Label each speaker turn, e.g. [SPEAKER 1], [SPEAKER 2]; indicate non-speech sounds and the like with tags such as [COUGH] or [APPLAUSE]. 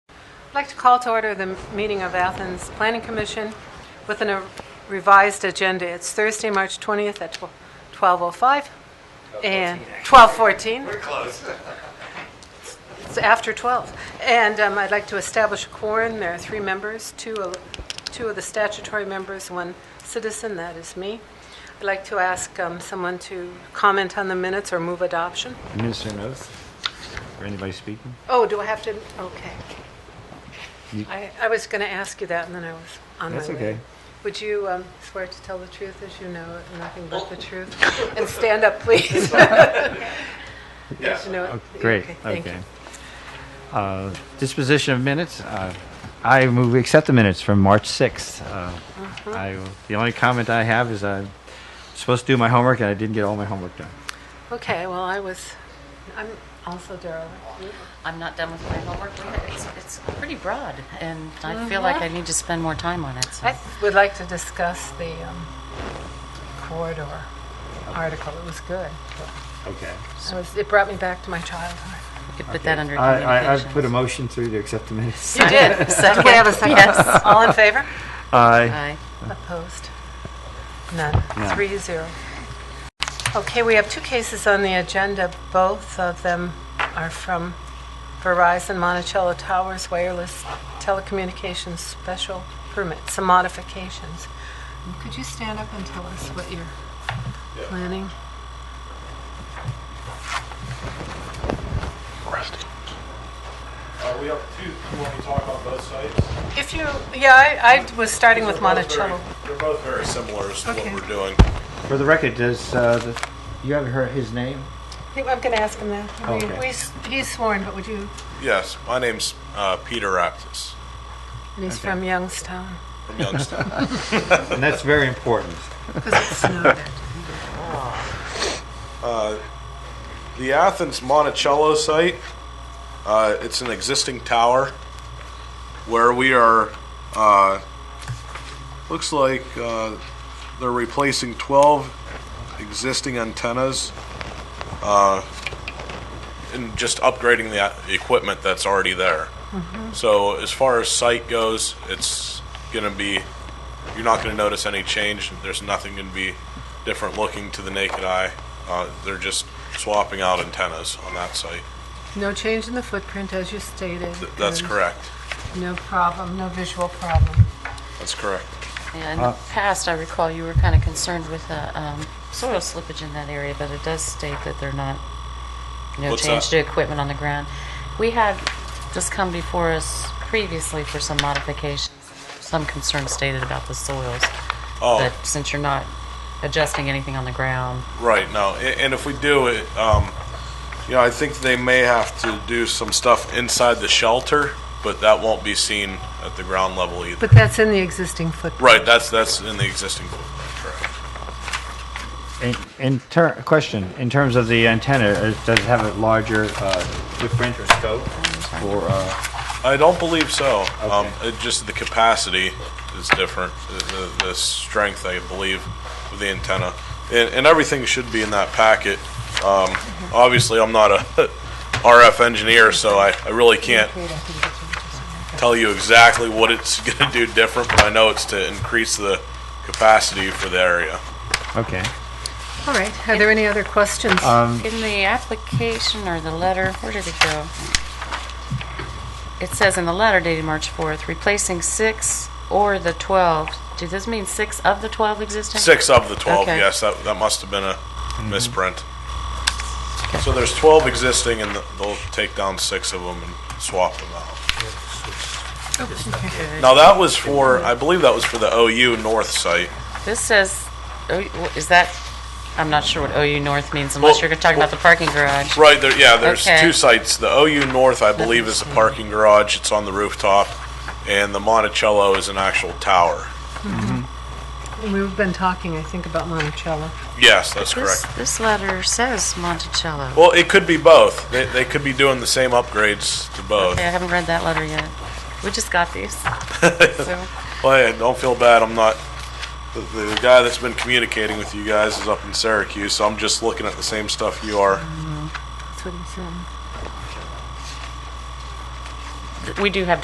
[SPEAKER 1] I'd like to call to order the meeting of Athens Planning Commission with a revised agenda. It's Thursday, March 20th at 12:05 and 12:14.
[SPEAKER 2] We're close.
[SPEAKER 1] It's after 12. And um, I'd like to establish a quorum. There are three members, two of- two of the statutory members, one citizen, that is me. I'd like to ask um, someone to comment on the minutes or move adoption.
[SPEAKER 3] Administer an oath for anybody speaking.
[SPEAKER 1] Oh, do I have to, okay.
[SPEAKER 3] You-
[SPEAKER 1] I I was going to ask you that, and then I was on my way.
[SPEAKER 3] That's okay.
[SPEAKER 1] Would you um, swear to tell the truth as you know it, and nothing but the truth? And stand up, please. [LAUGHS]
[SPEAKER 2] Yes.
[SPEAKER 1] You know it.
[SPEAKER 3] Oh, Great,
[SPEAKER 1] Okay, thank you.
[SPEAKER 3] okay. Uh, Disposition of minutes, uh, I move we accept the minutes from March 6th. Uh, I, the only comment I have is I'm supposed to do my homework and I didn't get all my homework done.
[SPEAKER 1] Okay, well, I was, I'm also Daryl.
[SPEAKER 4] I'm not done with my homework. It's, it's pretty broad, and I feel like I need to spend more time on it. So.
[SPEAKER 1] I would like to discuss the um, corridor article. It was good.
[SPEAKER 3] Okay.
[SPEAKER 1] It was- It brought me back to my childhood.
[SPEAKER 4] we could put that
[SPEAKER 3] I,
[SPEAKER 4] under
[SPEAKER 3] I, I've
[SPEAKER 4] communications.
[SPEAKER 3] put a motion through to accept the minutes.
[SPEAKER 1] You did. Do
[SPEAKER 4] Second.
[SPEAKER 1] we have a second?
[SPEAKER 4] Yes.
[SPEAKER 1] All in favor?
[SPEAKER 3] Aye.
[SPEAKER 4] Aye.
[SPEAKER 1] Opposed? None.
[SPEAKER 3] None.
[SPEAKER 1] Three zero. Okay, we have two cases on the agenda. Both of them are from Verizon Monticello Towers Wireless Telecommunications Special Permit, some modifications. Um, Could you stand up and tell us what you're planning?
[SPEAKER 5] Are we up to, you want me to talk about both sites?
[SPEAKER 1] If you, yeah, I, I was starting with
[SPEAKER 5] They're both
[SPEAKER 1] Monticello.
[SPEAKER 5] very- They're both very similar as to
[SPEAKER 1] Okay.
[SPEAKER 5] what we're doing.
[SPEAKER 3] For the record, does, uh, the- you haven't heard his name?
[SPEAKER 1] I think I'm going to ask him that. We-
[SPEAKER 3] Okay.
[SPEAKER 1] we s- He's sworn, but would you,
[SPEAKER 5] Yes, my name's uh, Peter Aptis
[SPEAKER 1] and he's from Youngstown,
[SPEAKER 5] from Youngstown. [LAUGHS]
[SPEAKER 3] And that's very important.
[SPEAKER 1] because it snowed.
[SPEAKER 5] The Athens Monticello site, uh, it's an existing tower where we are, uh, looks like uh, they're replacing 12 existing antennas uh, and just upgrading the a- the equipment that's already there. So as far as site goes, it's going to be, you're not going to notice any change. There's nothing going to be different looking to the naked eye. Uh, They're just swapping out antennas on that site.
[SPEAKER 1] No change in the footprint, as you stated.
[SPEAKER 5] Th- That's
[SPEAKER 1] and
[SPEAKER 5] correct.
[SPEAKER 1] No problem, no visual problem.
[SPEAKER 5] That's correct.
[SPEAKER 4] Yeah, in
[SPEAKER 3] Uh,
[SPEAKER 4] the past, I recall you were kind of concerned with the um, soil slippage in that area, but it does state that they're not, no
[SPEAKER 5] What's
[SPEAKER 4] change
[SPEAKER 5] that?
[SPEAKER 4] to equipment on the ground. We had this come before us previously for some modifications, some concern stated about the soils.
[SPEAKER 5] Oh.
[SPEAKER 4] But since you're not adjusting anything on the ground,
[SPEAKER 5] Right, no, a- and if we do it, um, you know, I think they may have to do some stuff inside the shelter, but that won't be seen at the ground level either.
[SPEAKER 1] But that's in the existing footprint.
[SPEAKER 5] Right, that's, that's in the existing footprint, correct.
[SPEAKER 3] In- In ter, question, in terms of the antenna, uh, does it have a larger uh, footprint or scope for, uh,
[SPEAKER 5] I don't believe so. Um,
[SPEAKER 3] Okay.
[SPEAKER 5] it just the capacity is different. The, the, the strength, I believe, of the antenna, and, and everything should be in that packet. Um, obviously, I'm not a [LAUGHS] RF engineer, so I, I really can't tell you exactly what it's [LAUGHS] going to do different, but I know it's to increase the capacity for the area.
[SPEAKER 3] okay.
[SPEAKER 1] All right, are there any other questions?
[SPEAKER 4] In the application or the letter, where did it go? It says in the letter dated March 4th, replacing six or the 12. Does this mean six of the 12 existing?
[SPEAKER 5] Six of the 12,
[SPEAKER 4] Okay.
[SPEAKER 5] yes, that, that must have been a misprint. So there's 12 existing, and th- they'll take down six of them and swap them out.
[SPEAKER 4] Oh,
[SPEAKER 5] Now, that was for, I believe that was for the OU North site.
[SPEAKER 4] This says, oh, wh- is that, I'm not sure what OU North means unless
[SPEAKER 5] Well,
[SPEAKER 4] you're talking about the parking garage.
[SPEAKER 5] Right, there, yeah, there's
[SPEAKER 4] Okay.
[SPEAKER 5] two sites. The OU North, I believe, is a parking garage, it's on the rooftop, and the Monticello is an actual tower.
[SPEAKER 1] We've been talking, I think, about Monticello.
[SPEAKER 5] Yes, that's
[SPEAKER 4] This,
[SPEAKER 5] correct.
[SPEAKER 4] this letter says Monticello.
[SPEAKER 5] Well, it could be both. They, they could be doing the same upgrades to both.
[SPEAKER 4] Okay, I haven't read that letter yet. We just got
[SPEAKER 5] [LAUGHS]
[SPEAKER 4] these. So,
[SPEAKER 5] Well, yeah, don't feel bad. I'm not. The, the guy that's been communicating with you guys is up in Syracuse, so I'm just looking at the same stuff you are.
[SPEAKER 4] We do have